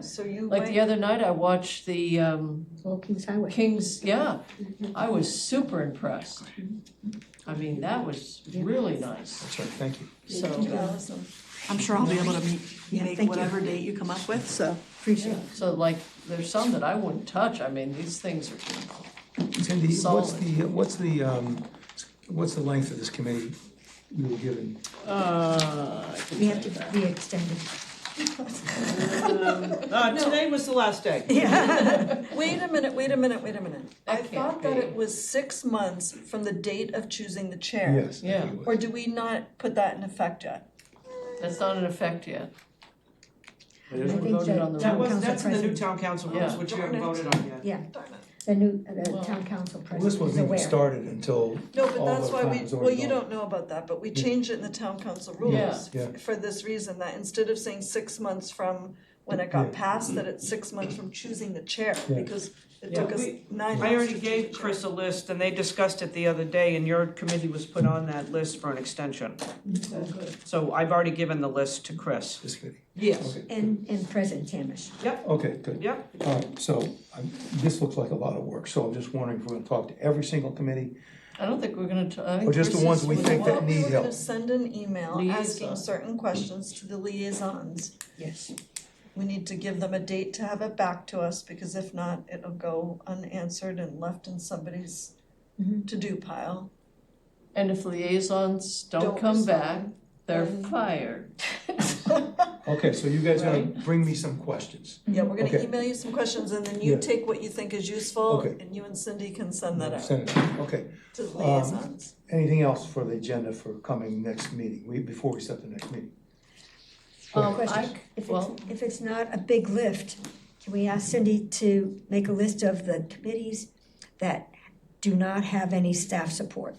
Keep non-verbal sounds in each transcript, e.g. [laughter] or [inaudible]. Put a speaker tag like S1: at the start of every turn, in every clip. S1: so you
S2: Like the
S1: went,
S2: other night, I watched the um,
S3: Old Kings Highway.
S2: Kings, yeah, I was super impressed. I mean, that was really nice,
S4: That's right, thank you.
S2: so,
S5: I'm sure I'll be able to meet,
S3: Yeah,
S5: make
S3: thank you.
S5: whatever date you come up with, so.
S3: Appreciate it.
S2: so like, there's some that I wouldn't touch, I mean, these things are,
S4: Cindy, what's
S2: Solid.
S4: the, what's the, um, what's the length of this committee you were given?
S6: Uh, I
S3: We
S6: can
S3: have to be extended.
S6: tell you. Uh, today was the last day.
S1: [laughs] wait a minute, wait a minute, wait a minute. I
S2: That can't
S1: thought that
S2: be.
S1: it was six months from the date of choosing the chair.
S2: Yeah.
S1: Or do we not put that in effect yet?
S2: that's not in effect yet. We
S3: I
S2: haven't
S3: think
S2: voted
S3: that-
S2: on the
S6: That
S3: Town
S6: was,
S3: council
S6: that's in the new
S3: president.
S6: town council
S2: Yeah.
S6: rules, which you haven't voted on yet.
S3: Yeah,
S1: Darn it.
S3: the new, the
S2: Well-
S3: town council
S4: Well,
S3: president
S4: this
S3: is
S4: wasn't even
S3: aware.
S4: started until
S1: No, but
S4: All
S1: that's
S4: the
S1: why we,
S4: plans already
S1: well, you
S4: gone.
S1: don't know about that, but we changed it in the town council rules
S4: Yeah.
S1: f- for this reason, that instead of saying six months from when it got
S4: Yeah.
S1: passed, that it's six months from choosing the chair,
S4: Yeah.
S1: because it
S6: Yeah,
S1: took us
S6: we-
S1: nine months to choose the chair.
S6: I already gave Chris a list and they discussed it the other day and your committee was put on that list for an extension. So I've already given the list to Chris.
S4: this committee.
S6: Yes.
S3: And, and President Tamish.
S4: Okay, good.
S6: Yeah.
S4: All right, so I'm, this looks like a lot of work, so I'm just wondering if we're gonna talk to every single committee?
S2: I don't think we're gonna, t- I think
S4: Or just the
S2: Chris's
S4: ones we
S2: was
S4: think
S2: one.
S4: that
S1: Well, we
S4: need
S1: were gonna
S4: help.
S1: send an email asking
S2: Liaison.
S1: certain questions to the liaisons.
S3: Yes.
S1: We need to give them a date to have it back to us, because if not, it'll go unanswered and left in somebody's
S6: Mm-hmm.
S3: Mhm.
S1: to-do pile.
S2: And if liaisons don't
S1: Don't
S2: come
S1: respond,
S2: back, they're
S1: then-
S3: Mm-hmm.
S2: fired.
S4: Okay, so you guys gotta bring me some questions.
S6: Mm-hmm.
S1: Yeah, we're gonna
S4: Okay.
S1: email you some questions, and then you
S4: Yeah.
S1: take what you think is useful,
S4: Okay.
S1: and you and Cindy can send that out
S4: Send um, it, okay.
S1: to the liaisons.
S4: Anything else for the agenda for coming next meeting, we, before we set the next meeting?
S2: Um, I,
S3: Question,
S2: c-
S3: if it's,
S2: well,
S3: if it's not a big lift, can we ask Cindy to make a list of the committees that do not have any staff support?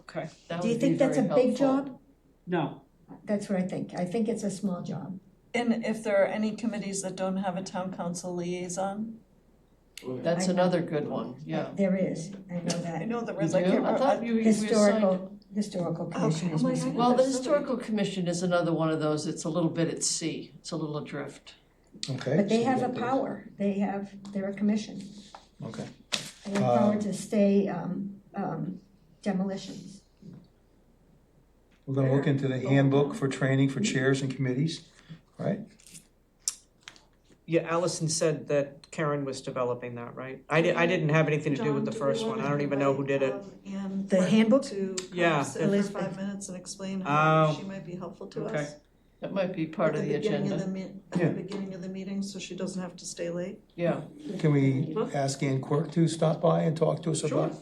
S6: Okay.
S2: that
S3: Do you
S2: would be
S3: think that's
S2: very
S3: a big
S2: helpful.
S3: job?
S6: No.
S3: That's what I think. I think it's a small job.
S1: And if there are any committees that don't have a town council liaison,
S2: That's
S3: I-
S2: another good one, yeah.
S3: There is, I know
S1: I
S3: that.
S1: know there
S2: You
S1: was like.
S2: do? I thought you, you assigned.
S3: Historical, historical commission
S1: Okay,
S3: is
S1: oh my
S3: missing.
S1: God.
S2: Well, the
S1: There's so
S2: historical commission is another one of those, it's a little bit at sea, it's a little adrift.
S4: Okay.
S3: But
S4: so
S3: they
S4: we
S3: have a
S4: got those.
S3: power, they have, they're a commission,
S4: Okay,
S3: they have power
S4: Um,
S3: to stay, um, um, demolitions.
S4: we're gonna look into the handbook for training for chairs and committees, right?
S6: Yeah, Allison said that Karen was developing that, right? I di- I didn't have anything to do with the first one. I don't even know who did it.
S1: um, And
S3: The handbook?
S1: To come
S6: Yeah.
S1: sit for
S3: Elizabeth.
S1: five minutes and explain how
S6: Oh.
S1: she might be helpful to
S6: Okay.
S1: us.
S2: That might be part of the
S1: At the
S2: agenda,
S1: beginning of the me-
S4: Yeah.
S1: at the beginning of the meeting, so she doesn't have to stay late.
S2: yeah.
S4: Can we ask Ann Quirk to stop by and talk to us about?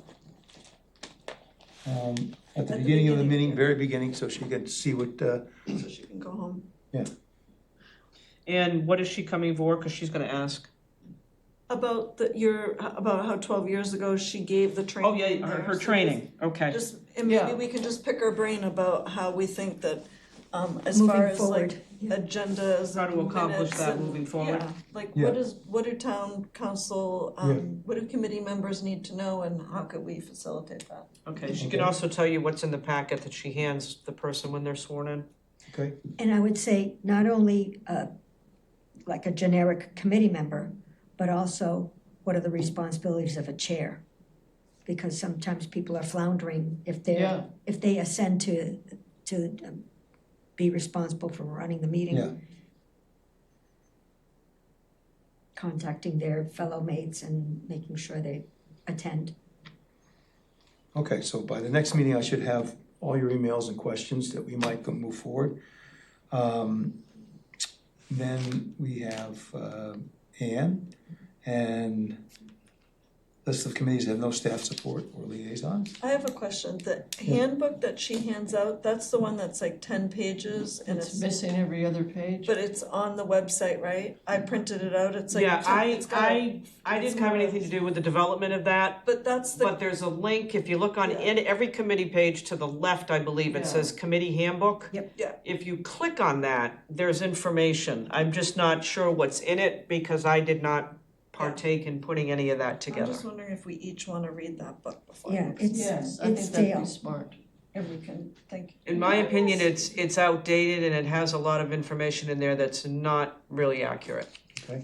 S4: Um, at the beginning of the meeting, very beginning, so she can see what, uh,
S1: So she can go home.
S6: And what is she coming for? Cause she's gonna ask.
S1: About the, your, about how twelve years ago she gave the training.
S6: Oh, yeah, her,
S1: there,
S6: her
S1: so
S6: training, okay.
S1: Just, and maybe
S2: Yeah.
S1: we can just pick her brain about how we think that, um, as
S3: Moving
S1: far as like
S3: forward, yeah.
S1: agendas
S6: How to
S1: and
S6: accomplish
S1: minutes
S6: that
S1: and-
S6: moving forward.
S1: yeah, Like,
S4: Yeah.
S1: what is, what do town council, um, what do committee members need to know and how could we facilitate that?
S6: Okay, she can also tell you what's in the packet that she hands the person when they're sworn in.
S4: okay?
S3: And I would say not only, uh, like a generic committee member, but also what are the responsibilities of a chair? Because sometimes people are floundering if
S2: Yeah.
S3: they're, if they ascend to, to um, be responsible for running the meeting.
S4: Yeah.
S3: Contacting their fellow mates and making sure they attend.
S4: Okay, so by the next meeting, I should have all your emails and questions that we might go move forward. Um, Then we have uh, Ann, and list of committees that have no staff support or liaisons.
S1: I have a question, the handbook that she hands out, that's the one that's like ten pages and
S2: It's
S1: it's,
S2: missing every other page.
S1: but it's on the website, right? I printed it out, it's like.
S6: Yeah, I,
S1: it's got a-
S6: I, I didn't have anything to do with the development of that,
S1: But that's the
S6: but there's a link, if you look on
S1: Yeah.
S6: in every committee page to the left, I believe,
S2: Yeah.
S6: it says committee handbook.
S3: Yep.
S1: Yeah.
S6: If you click on that, there's information. I'm just not sure what's in it because I did not partake in putting any of that
S1: I'm
S6: together.
S1: just wondering if we each wanna read that book before.
S3: Yeah,
S1: next-
S3: it's,
S2: Yes, I
S3: it's
S2: think that'd be
S3: stale.
S2: smart.
S1: And we can think.
S6: In my opinion, it's, it's outdated and it has a lot of information in there that's not really accurate.